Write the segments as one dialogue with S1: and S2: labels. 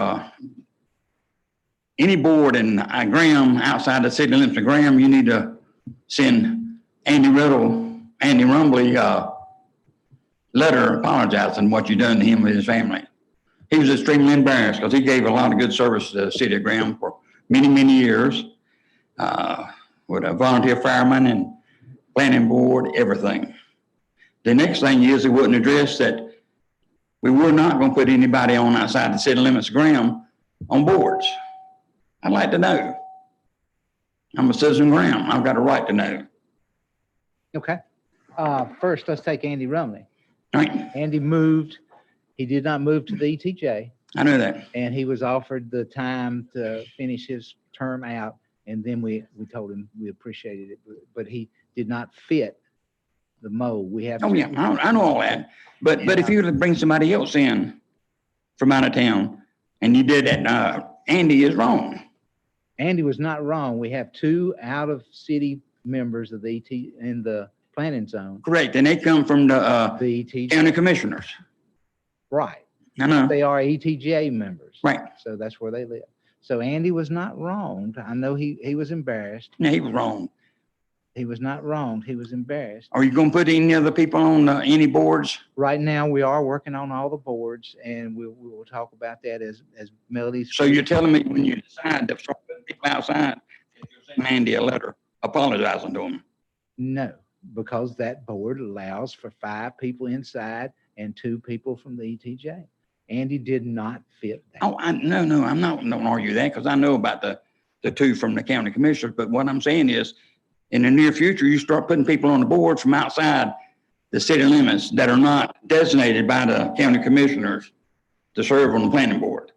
S1: Uh, any board in uh, Graham, outside the city limits of Graham, you need to send Andy Riddle, Andy Rumbly, uh, letter apologizing what you done to him and his family. He was extremely embarrassed because he gave a lot of good service to the city of Graham for many, many years. Uh, with a volunteer fireman and planning board, everything. The next thing is, it wouldn't address that we were not gonna put anybody on outside the city limits of Graham on boards. I'd like to know. I'm a citizen of Graham. I've got a right to know.
S2: Okay. Uh, First, let's take Andy Rumley.
S1: All right,
S2: Andy moved, he did not move to the ETJ,
S1: I know that.
S2: and he was offered the time to finish his term out. And then we, we told him we appreciated it, but- but he did not fit the mold. We have.
S1: Oh, yeah, I, I know all that. But, but if you were to bring somebody else in from out of town and you did that, uh, Andy is wrong.
S2: Andy was not wrong. We have two out-of-city members of the ET, in the planning zone,
S1: Correct, and they come from the, uh,
S2: the ETJ,
S1: county commissioners.
S2: right.
S1: I know.
S2: They are E ETJ members.
S1: Uh-huh. Right.
S2: So that's where they live. So Andy was not wronged. I know he, he was embarrassed.
S1: No, he was wrong.
S2: He was not wronged. He was embarrassed.
S1: Are you gonna put any other people on, uh, any boards?
S2: Right now, we are working on all the boards and we, we will talk about that as, as Melody's.
S1: So you're telling me when you decide to start putting people outside, that you're sending Andy a letter apologizing to him?
S2: No, because that board allows for five people inside and two people from the E ETJ. Andy did not fit that.
S1: Oh, I, no, no, I'm not, don't argue that, because I know about the, the two from the county commissioners, but what I'm saying is, in the near future, you start putting people on the board from outside the city limits that are not designated by the county commissioners to serve on the planning board.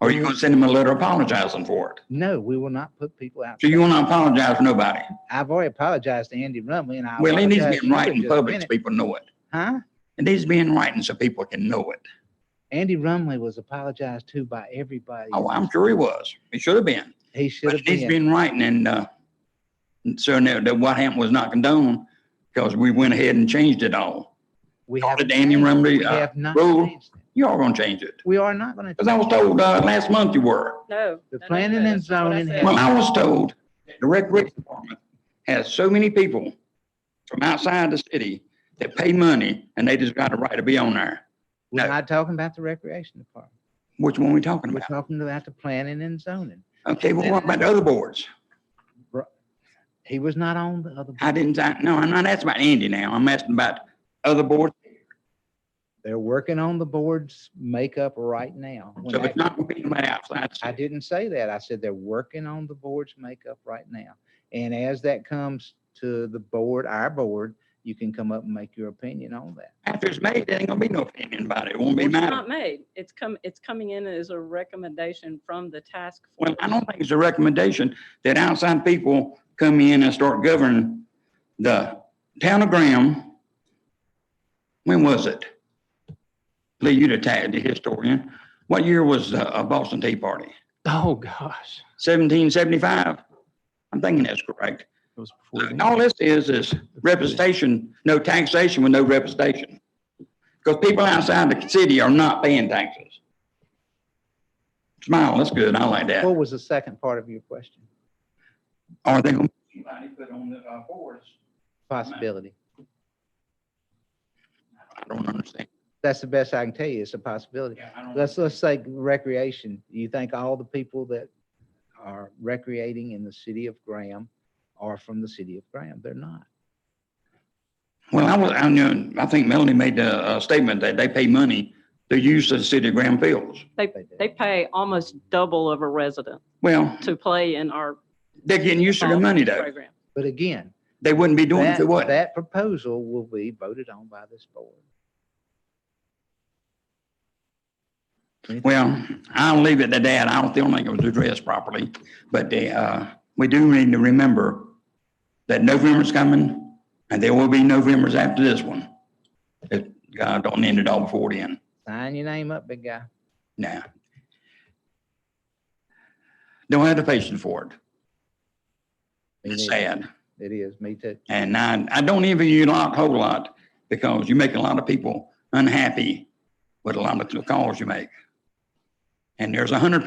S1: Are you gonna send them a letter apologizing for it?
S2: No, we will not put people out.
S1: So you wanna apologize to nobody?
S2: I've already apologized to Andy Rumley and I.
S1: Well, it needs to
S2: apologize
S1: be
S2: to
S1: in
S2: you
S1: writing
S2: just a
S1: public so
S2: minute.
S1: people know it.
S2: Huh?
S1: It needs to be in writing so people can know it.
S2: Andy Rumley was apologized to by everybody.
S1: Oh, I'm sure he was. He should have been.
S2: He should
S1: But
S2: have
S1: it needs to
S2: been.
S1: be in writing and, uh, and so now that what happened was not condoned because we went ahead and changed it all.
S2: We
S1: Called
S2: haven't
S1: it Andy
S2: changed it.
S1: Rumley,
S2: We
S1: uh,
S2: have not
S1: rule.
S2: changed it.
S1: You are gonna change it.
S2: We are not going
S1: Cause I
S2: to.
S1: was told, uh, last month you were.
S3: No.
S2: The
S3: no, no,
S2: planning
S3: no,
S2: and
S3: that's not what I
S2: zoning
S3: said.
S2: has-
S1: Well, I was told that the recreation department has so many people from outside the city that pay money and they just got a right to be on there.
S2: We're
S1: No.
S2: not talking about the recreation department.
S1: Which one we talking
S2: We're
S1: about?
S2: talking about the planning and zoning.
S1: Okay, well, what about the other boards?
S2: He was not on the other.
S1: I
S2: board.
S1: didn't, I, no, I'm not asking about Andy now. I'm asking about other boards.
S2: They're working on the board's makeup right now. When
S1: So
S2: that-
S1: it's not gonna be anybody outside. the
S2: I
S1: city.
S2: didn't say that. I said they're working on the board's makeup right now. And as that comes to the board, our board, you can come up and make your opinion on that.
S1: After it's made, there ain't gonna be no opinion about it. It won't be
S3: It's
S1: mine.
S3: not made. It's come, it's coming in as a recommendation from the task
S1: Well,
S3: force.
S1: I don't think it's a recommendation that outside people come in and start governing the town of Graham. When was it? Lee, you the tag, the historian. What year was the uh, Boston Tea Party?
S4: Oh, gosh.
S1: Seventeen seventy-five? I'm thinking that's correct.
S4: It was before. then.
S1: All this is, is representation, no taxation with no representation. Because people outside the city are not paying taxes. Smile, that's good, I like that.
S2: What was the second part of your question?
S1: Are they gonna? Anybody put on the, uh, boards? Uh,
S2: Possibility.
S1: I don't understand.
S2: That's the best I can tell you. It's a possibility.
S1: Yeah, I don't-
S2: Let's, let's say recreation. Do you think all the people that are recreating in the city of Graham are from the city of Graham? They're not.
S1: Well, I was, I knew, I think Melanie made the, uh, statement that they pay money to use the city of Grand Fields.
S3: They,
S2: They do.
S3: they pay almost double of a resident
S1: Well,
S3: to play in our.
S1: they're getting used to the
S3: volleyball
S1: money though.
S3: program.
S2: But again,
S1: They wouldn't be doing it if it
S2: that,
S1: wasn't.
S2: that proposal will be voted on by this board.
S1: Well, I'll leave it to that. I don't still think it was addressed properly, but the, uh, we do need to remember that November's coming and there will be Novembers after this one. If God don't end it all before then,
S2: Sign your name up, big guy.
S1: now. Don't have the patience for it.
S2: Me
S1: It's
S2: neither.
S1: sad.
S2: It is, me too.
S1: And I, I don't envy you a lot, a whole lot, because you make a lot of people unhappy with a lot of the calls you make. And there's a hundred